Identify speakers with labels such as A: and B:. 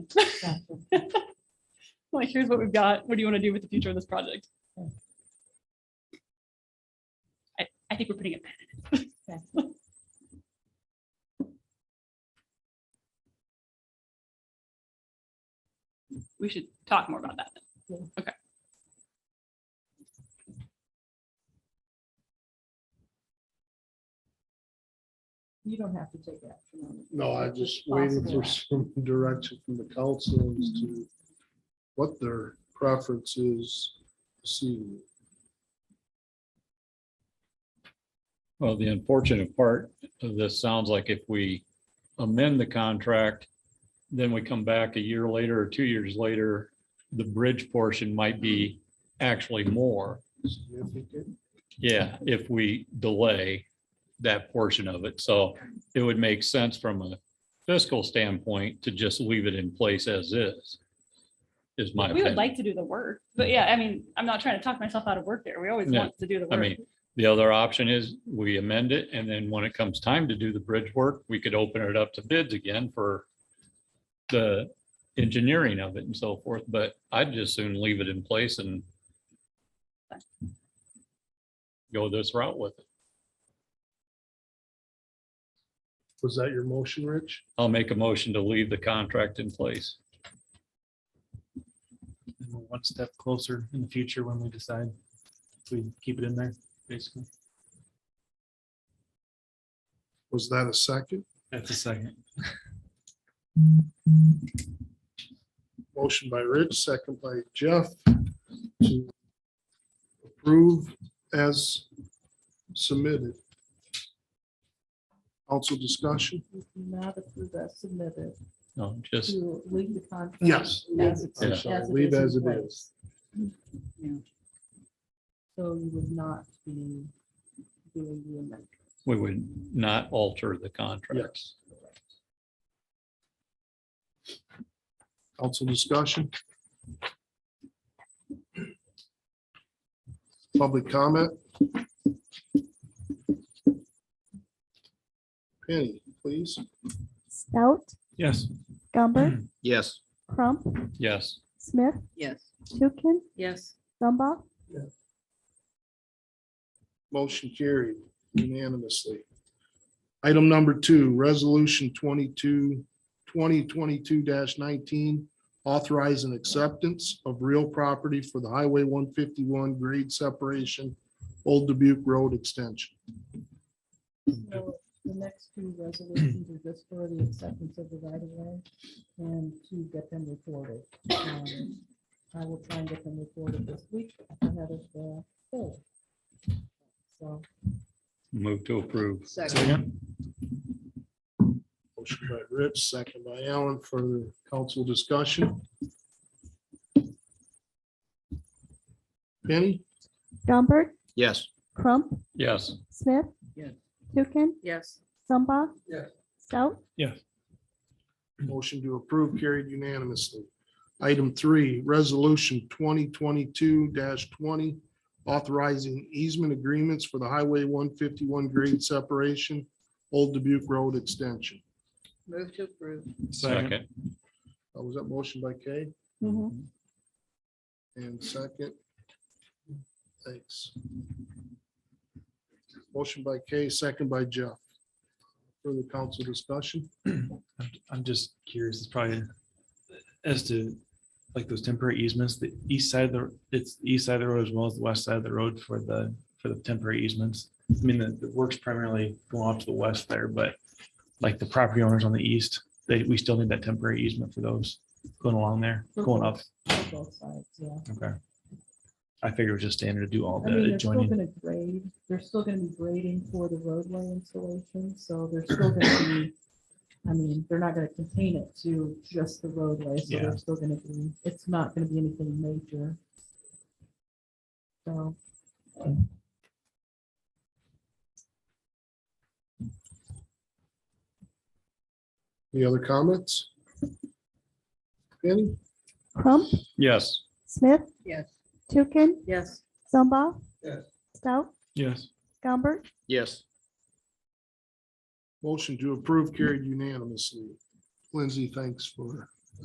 A: Like, here's what we've got. What do you want to do with the future of this project? I, I think we're putting it. We should talk more about that. then. Okay.
B: You don't have to take action on it.
C: No, I just waited for some direction from the council as to what their preference is this evening.
D: Well, the unfortunate part of this sounds like if we amend the contract, then we come back a year later or two years later, the bridge portion might be actually more.
C: Significant.
D: Yeah, if we delay that portion of it. So it would make sense from a fiscal standpoint to just leave it in place as is. Is my
A: We would
D: opinion.
A: like to do the work, but yeah, I mean, I'm not trying to talk myself out of work there. We always
D: No,
A: want to do the
D: I
A: work.
D: mean, the other option is we amend it and then when it comes time to do the bridge work, we could open it up to bids again for the engineering of it and so forth, but I'd just soon leave it in place and go this route with it.
C: Was that your motion, Rich?
D: I'll make a motion to leave the contract in place.
E: and we're one step closer in the future when we decide if we keep it in there, basically.
C: Was that a second?
E: That's a second.
C: Motion by Rich, second by Jeff to approve as submitted. Council discussion?
B: You do Not approve as submitted
D: No, just,
B: to leave the contract.
C: Yes.
B: As it's-
C: I'm
B: as
C: sorry,
B: it
C: Leave
B: is in
C: as it
B: place.
C: is.
B: So you would not be doing the amendment.
D: we would not alter the contract.
C: Council discussion? Public comment? Penny, please.
F: Stout,
E: Yes.
F: Gumber,
C: Mm.
G: Yes.
F: Crump,
D: Yes,
F: Smith,
B: Yes.
F: Tukin,
B: Yes.
F: Zumba,
C: Motion carried unanimously. Item number two, resolution 22 2022 nineteen, authorizing acceptance of real property for the Highway one fifty-one grade separation, Old Dubuque Road extension.
B: So the next two resolutions are just for the acceptance of the right of way and to get them recorded. Um, I will try and get them recorded this week ahead of the poll. uh, So.
D: move to approve.
E: Second.
C: Motion by Rich, second by Allen, further council discussion. Penny?
F: Gumbert,
G: Yes.
F: Crump,
D: Yes,
F: Smith,
B: Yes.
F: Tukin,
B: Yes.
F: Zumba.
C: Yes.
F: Stout,
C: Motion to approve carried unanimously. Item three, resolution twenty twenty-two twenty, authorizing easement agreements for the Highway one fifty-one grade separation, Old Dubuque Road extension.
B: Move to approve.
D: second,
C: Uh, Was that motion by Kay? And second? Thanks. Motion by Kay, second by Jeff. Further council discussion?
E: I'm- I'm just curious, it's probably as to like those temporary easements, the east side of the, it's the east side of the road as well as the west side of the road for the, for the temporary easements. I mean, the, the works primarily go off to the west there, but like the property owners on the east, they, we still need that temporary easement for those going along there,
B: For
E: going up.
B: both- for Both sides, yeah.
E: Okay. I figured it was just standard to do all
B: I mean,
E: the
B: they're still
E: adjoining.
B: gonna grade, they're still gonna be grading for the roadway installation, so they're still gonna be, I mean, they're not gonna contain it to just the roadway, so
E: Yeah.
B: they're still gonna be, it's not gonna be anything major. So,
C: Any other comments? Penny?
F: Crump,
D: yes.
F: Smith,
B: yes.
F: Tukin,
B: Yes.
F: Zumba.
C: Yes.
F: Stout,
E: Yes.
F: Gumbert,
G: Yes.
C: Motion to approve carried unanimously. Lindsay, thanks for